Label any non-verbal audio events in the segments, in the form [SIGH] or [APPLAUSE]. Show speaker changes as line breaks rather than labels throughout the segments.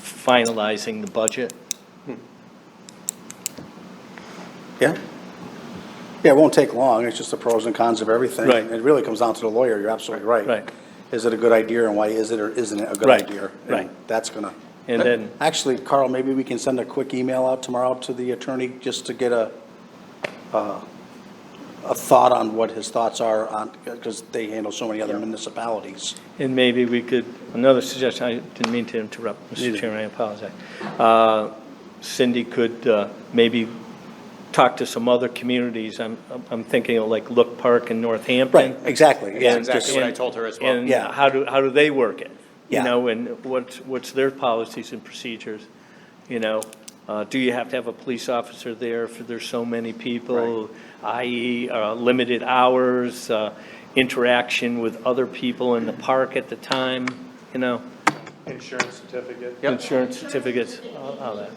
finalizing the budget.
Yeah. Yeah, it won't take long, it's just the pros and cons of everything.
Right.
It really comes down to the lawyer, you're absolutely right.
Right.
Is it a good idea, and why is it or isn't it a good
Right,
idea? And
right.
That's gonna.
And then-
Actually, Carl, maybe we can send a quick email out tomorrow to the attorney, just to get a, uh, a, a thought on what his thoughts are on, because they handle so many other municipalities.
And maybe we could, another suggestion, I didn't mean to interrupt, Mr. Chairman, I apologize. Uh, Cindy could uh, maybe talk to some other communities. I'm, I'm thinking of like Look Park in Northampton.
Right, exactly, yeah.
And-
exactly what I told her as well.
And
Yeah.
how do, how do they work it? You
Yeah.
know, and what's, what's their policies and procedures? You know, uh, do you have to have a police officer there if there's so many people? I.e., uh, limited hours, uh, interaction with other people in the park at the time, you know?
Insurance certificate.
Yep.
Insurance certificates, all all that.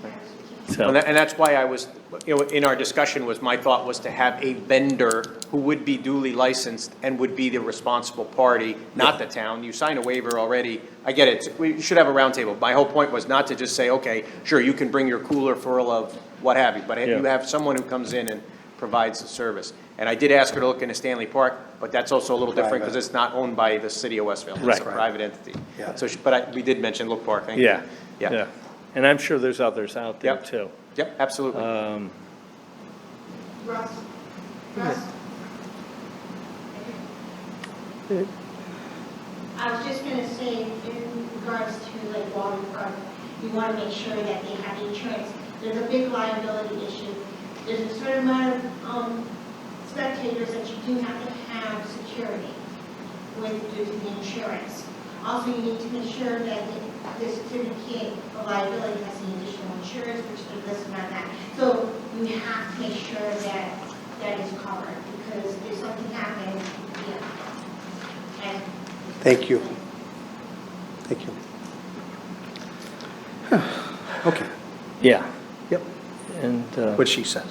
And
So,
that- and that's why I was, you know, in our discussion was, my thought was to have a vendor who would be duly licensed and would be the responsible party, not the town. You sign a waiver already. I get it. We should have a roundtable. My whole point was not to just say, okay, sure, you can bring your cooler full of what have you, but you
Yeah.
have someone who comes in and provides the service. And I did ask her to look into Stanley Park, but that's also a little different because
Private.
it's not owned by the city of Westville. It's a
Right.
private entity.
Yeah.
So, she- but I, we did mention Look Park, thank you.
yeah.
Yeah.
And I'm sure there's others out there,
Yep.
too.
Yep, absolutely.
Uh,
Russ, Russ. I was just gonna say, in regards to like waterfront, you wanna make sure that they have insurance. There's a big liability issue. There's a certain amount of, um, spectators that you do have to have security with, due to the insurance. Also, you need to make sure that the- the certificate of liability has the additional insurance, which they're listed on that. So you have to make sure that that is covered, because if something happens, yeah. And
Thank you. Thank you. [SIGHS] Okay,
Yeah.
yep,
And. uh,
what she says.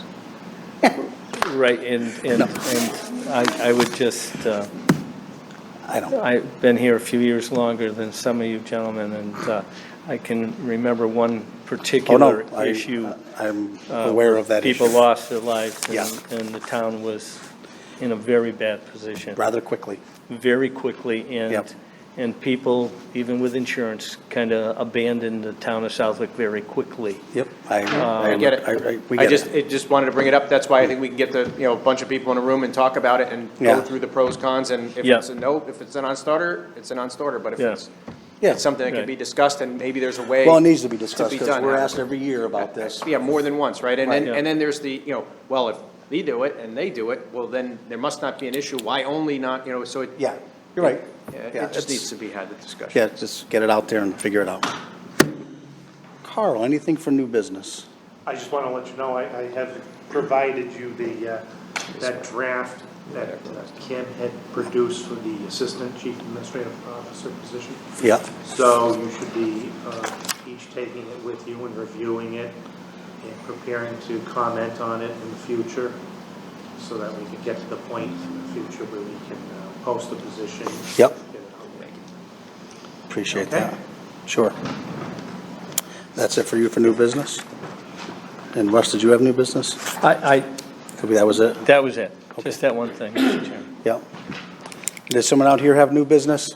Right, and, and, and I, I would just, uh,
I don't.
I've been here a few years longer than some of you gentlemen, and, uh, I can remember one
Oh, no,
particular
I-
issue.
I'm
uh,
aware of that
People
issue
lost their lives, and,
Yeah.
and the town was in a very bad position,
rather quickly.
very quickly,
Yep.
and, and people, even with insurance, kind of abandoned the town of Southwick very quickly.
Yep, I,
Um,
I get it.
I- I- We
I
get
just,
it.
it just wanted to bring it up. That's why I think we can get the, you know, a bunch of people in a room and talk about it and go
Yeah.
through the pros, cons, and if
Yeah.
it's a no, if it's a non-starter, it's a non-starter, but if
Yeah.
it's
Yeah.
it's something that can be
Right.
discussed and maybe there's a way.
Well, it needs to be discussed because
done.
we're asked every year about this.
Yeah, more than once, right? And then,
Right.
and then there's the, you know, well, if they do it and they do it, well, then there must not be an issue. Why only not, you know, so it.
Yeah, you're right.
Yeah,
Yeah,
It
it's-
just needs to be had, the discussion.
Yeah, just get it out there and figure it out. Carl, anything for new business?
I just want to let you know, I, I have provided you the, uh, that draft that uh, Kim had produced for the Assistant Chief Administrative Officer position.
Yeah,
So you should be uh, each taking it with you and reviewing it and preparing to comment on it in the future so that we can get to the point in the future where we can uh, post the position.
Yep.
Get it out there.
appreciate
Okay.
that. Sure. That's it for you for new business? And Russ, did you have new business?
I, I,
Could be that was it?
that was it, just that one thing, Mr. Chairman.
Yeah. Does someone out here have new business?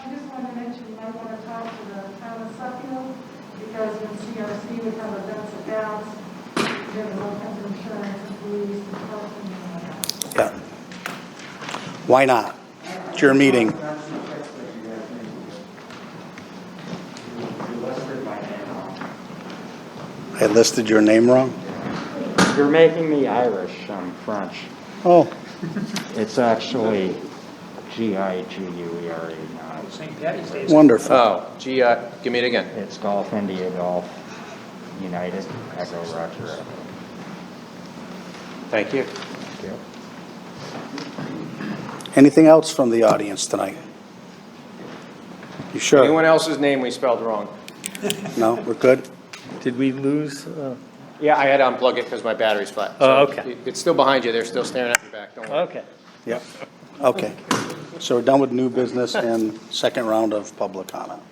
I just want to mention, you might want to talk to the town of Suffield, because in CRC, we have events and gals, we have all kinds of insurance, and police, and health, and all that.
Yeah. Why not? It's your meeting. I listed your name wrong?
You're making me Irish, I'm French.
Oh,
It's actually G-I-G-U-E-R-E, E not,
wonderful.
Oh, gee, uh, give me it again.
it's Golf India Golf United Echo Roger Echo.
Thank you.
Anything else from the audience tonight? You sure?
Anyone else's name we spelled wrong?
No, we're good?
Did we lose, uh,
Yeah, I had to unplug it because my battery's flat.
Oh,
So
okay.
it- It's still behind you. They're still staring at your back. Don't worry.
okay.
Yep. Okay. So we're done with new business and second round of public comment.